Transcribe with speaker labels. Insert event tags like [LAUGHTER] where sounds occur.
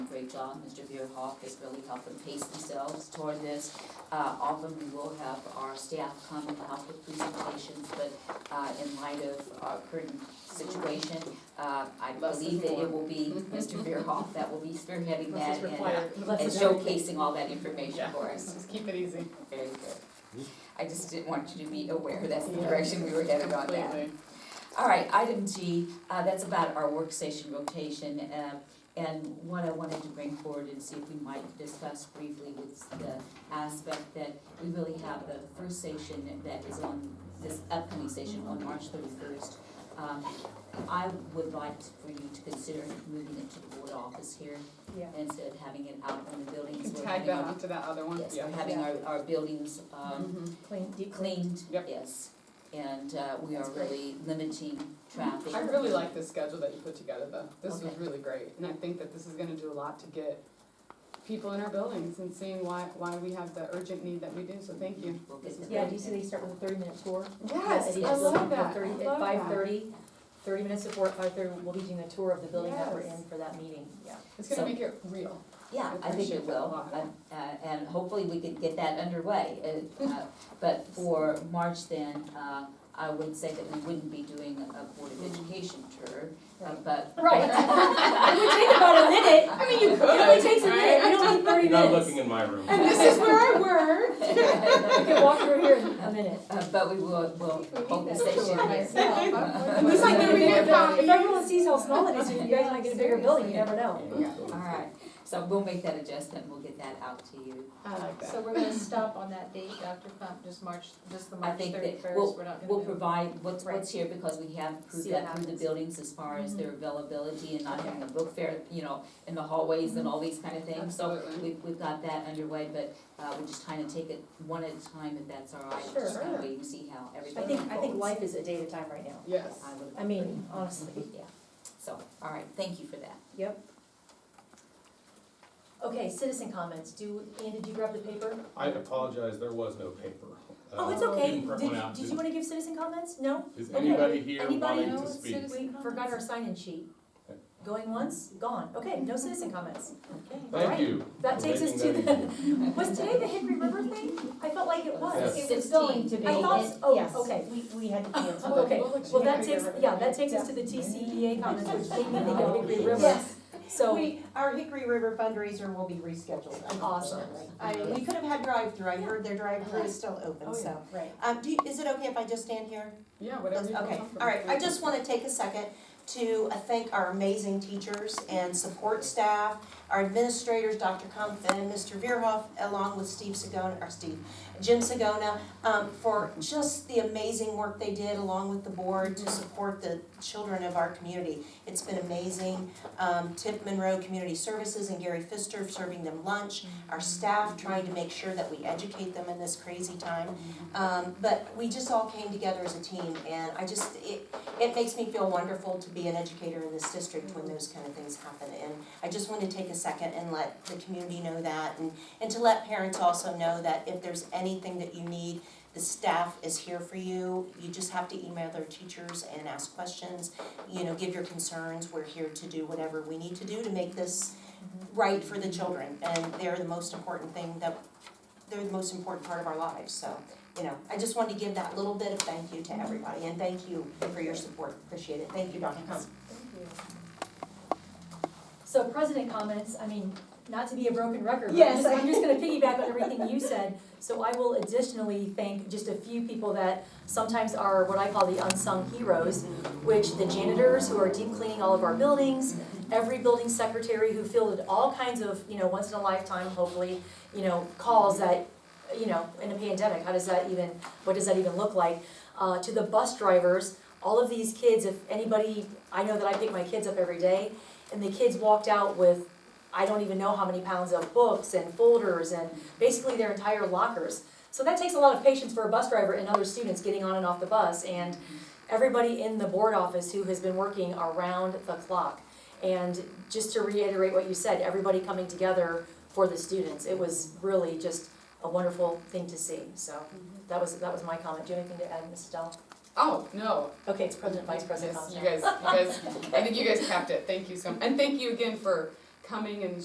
Speaker 1: great job, Mr. Beerhoff has really helped them pace themselves toward this. Uh, often we will have our staff come and help with presentations, but, uh, in light of our current situation, uh, I
Speaker 2: Less is
Speaker 1: believe that
Speaker 2: more.
Speaker 1: it will
Speaker 2: [LAUGHS]
Speaker 1: be Mr. Beerhoff that will be spearheading
Speaker 2: Less
Speaker 1: that
Speaker 2: is
Speaker 1: and, uh,
Speaker 2: required. Less
Speaker 1: and
Speaker 2: is everything.
Speaker 1: showcasing all that information
Speaker 2: Yeah,
Speaker 1: for us.
Speaker 2: let's keep it easy.
Speaker 1: Very good. I just didn't want you to be aware, that's the
Speaker 2: Yeah.
Speaker 1: direction we were headed on that.
Speaker 2: Completely.
Speaker 1: All right, item G, uh, that's about our workstation rotation, uh, and what I wanted to bring forward and see if we might discuss briefly was the aspect that we really have the first station that is on, this upcoming station on March thirty-first. Um, I would like for you to consider moving it to the board office here
Speaker 3: Yeah.
Speaker 1: instead of having it out on the
Speaker 2: You
Speaker 1: buildings.
Speaker 2: can
Speaker 1: We're
Speaker 2: tag
Speaker 1: having
Speaker 2: that
Speaker 1: our-
Speaker 2: onto that other one,
Speaker 1: Yes,
Speaker 2: yeah.
Speaker 1: we're having our, our buildings, um,
Speaker 2: Mhm.
Speaker 3: Clean, deep clean.
Speaker 1: cleaned,
Speaker 2: Yep.
Speaker 1: yes. And uh, we are
Speaker 2: That's great.
Speaker 1: really limiting traffic.
Speaker 2: I really like the schedule that you put together though, this was
Speaker 1: Okay.
Speaker 2: really great, and I think that this is gonna do a lot to get people in our buildings and seeing why, why we have the urgent need that we do, so thank you.
Speaker 1: We'll get to
Speaker 3: Yeah,
Speaker 1: that.
Speaker 3: do you see they start with a thirty minute tour?
Speaker 2: Yes,
Speaker 3: Yeah,
Speaker 2: I
Speaker 3: it is.
Speaker 2: love
Speaker 3: The
Speaker 2: that, I
Speaker 3: 30
Speaker 2: love
Speaker 3: At five
Speaker 2: that.
Speaker 3: thirty, thirty minutes before, at five thirty, we'll be doing a tour of the building that we're
Speaker 2: Yes.
Speaker 3: in for that meeting, yeah.
Speaker 2: It's gonna
Speaker 1: So-
Speaker 2: make it real,
Speaker 1: Yeah, I think
Speaker 2: appreciate
Speaker 1: it
Speaker 2: that a
Speaker 1: will,
Speaker 2: lot.
Speaker 1: Uh, uh, and hopefully we could get that underway. Uh, uh, But for March then, uh, I would say that we wouldn't be doing a Board of Education tour, uh, but.
Speaker 2: [LAUGHS]
Speaker 3: Right. [LAUGHS] It would take about a minute. I mean, you could. It only takes a minute, you don't need thirty
Speaker 4: You're not
Speaker 3: minutes.
Speaker 4: looking in my room.
Speaker 2: and this is where I work.
Speaker 3: [LAUGHS] You can walk through here in a minute.
Speaker 1: [LAUGHS] Uh, But we will, will hold the station here.
Speaker 2: At least I know we get
Speaker 3: If everyone sees how small it is, you guys might get a bigger building, you never know.
Speaker 2: Yeah,
Speaker 1: All right, so we'll make that adjustment, we'll get that out to you.
Speaker 2: I like that.
Speaker 5: So we're gonna stop on that date, Dr. Funk, just March, just the
Speaker 1: I
Speaker 5: March
Speaker 1: think
Speaker 5: thirty-first,
Speaker 1: that
Speaker 5: we're
Speaker 1: we'll,
Speaker 5: not gonna
Speaker 1: we'll
Speaker 5: move.
Speaker 1: provide what's,
Speaker 5: Right.
Speaker 1: what's here because we have proved
Speaker 5: See what
Speaker 1: that through the
Speaker 5: happens.
Speaker 1: buildings as far
Speaker 3: Mm-hmm.
Speaker 1: as their availability and not having a book fair, you know, in the hallways
Speaker 3: Mm-hmm.
Speaker 1: and all these kind of things. So
Speaker 2: Absolutely.
Speaker 1: we've, we've got that underway, but, uh, we just kind of take it one at a time if that's all right. Just kind
Speaker 2: Sure.
Speaker 1: of wait and see how everything
Speaker 3: I
Speaker 1: unfolds.
Speaker 3: think, I think life is a day at a time right now.
Speaker 2: Yes,
Speaker 1: I would
Speaker 3: I
Speaker 1: agree.
Speaker 3: mean, honestly, yeah.
Speaker 1: So, all right, thank you for that.
Speaker 3: Yep. Okay, citizen comments. Do, Ian, did you grab the paper?
Speaker 4: I apologize, there was no paper.
Speaker 3: Oh, it's
Speaker 4: Uh,
Speaker 3: okay.
Speaker 4: didn't print
Speaker 3: Did,
Speaker 4: one out.
Speaker 3: did you wanna give citizen comments? No?
Speaker 4: Is
Speaker 3: okay.
Speaker 4: anybody here
Speaker 3: Anybody
Speaker 4: wanting
Speaker 5: know
Speaker 4: to
Speaker 5: it's
Speaker 4: speak?
Speaker 5: citizen-
Speaker 3: We forgot our sign-in sheet. Going once, gone. Okay, no citizen comments.
Speaker 4: Thank
Speaker 3: Alright.
Speaker 4: you.
Speaker 3: That
Speaker 4: for
Speaker 3: takes us
Speaker 4: making
Speaker 3: to
Speaker 4: that
Speaker 3: the,
Speaker 4: easy.
Speaker 3: was today the Hickory River thing? I felt like it was.
Speaker 4: Yes.
Speaker 5: It was going to be.
Speaker 3: I thought,
Speaker 5: Yes.
Speaker 3: oh, okay, we, we [LAUGHS] had to cancel. Oh, Okay, well, that takes, yeah, that takes us to the TCEA comments, [LAUGHS] which made me think of Hickory River.
Speaker 6: Yes,
Speaker 3: So,
Speaker 6: we, our Hickory River fundraiser will be rescheduled,
Speaker 3: Awesome.
Speaker 6: unfortunately. I mean, we could have had drive-through, I heard their drive-through is still open,
Speaker 3: Oh, yeah.
Speaker 6: so.
Speaker 3: right.
Speaker 6: Um, do, you- is it okay if I just stand here?
Speaker 2: yeah, whatever you feel
Speaker 6: Okay,
Speaker 2: comfortable
Speaker 6: all right, I
Speaker 2: with.
Speaker 6: just wanna take a second to uh, thank our amazing teachers and support staff, our administrators, Dr. Comfin, Mr. Veerhoff, along with Steve Sagona, or Steve, Jim Sagona, um, for just the amazing work they did along with the board to support the children of our community. It's been amazing. Um, Tip Monroe Community Services and Gary Fister serving them lunch, our staff trying to make sure that we educate them in this crazy time. Um, but we just all came together as a team and I just, it, it makes me feel wonderful to be an educator in this district when those kind of things happen. And I just wanted to take a second and let the community know that and, and to let parents also know that if there's anything that you need, the staff is here for you. You just have to email their teachers and ask questions, you know, give your concerns. We're here to do whatever we need to do to make this right for the children. And they're the most important thing that, they're the most important part of our lives, so, you know. I just wanted to give that little bit of thank you to everybody and thank you for your support. Appreciate it. Thank you, Dr. Cummings.
Speaker 3: So president comments, I mean, not to be a broken record, but I'm
Speaker 6: Yes.
Speaker 3: just, I'm just gonna piggyback on everything you said. So I will additionally thank just a few people that sometimes are what I call the unsung heroes, which the janitors who are deep cleaning all of our buildings, every building secretary who fielded all kinds of, you know, once in a lifetime, hopefully, you know, calls that, you know, in a pandemic, how does that even, what does that even look like? Uh, to the bus drivers, all of these kids, if anybody, I know that I pick my kids up every day, and the kids walked out with I don't even know how many pounds of books and folders and basically their entire lockers. So that takes a lot of patience for a bus driver and other students getting on and off the bus and everybody in the board office who has been working around the clock. And just to reiterate what you said, everybody coming together for the students. It was really just a wonderful thing to see. So that was that was my comment. Do you have anything to add, Ms. Dell?
Speaker 2: Oh, no,
Speaker 3: Okay, it's president, vice president
Speaker 2: Yes,
Speaker 3: comments now. [LAUGHS]
Speaker 2: You guys, you guys, I think you guys capped it, thank you so, and thank you again for coming and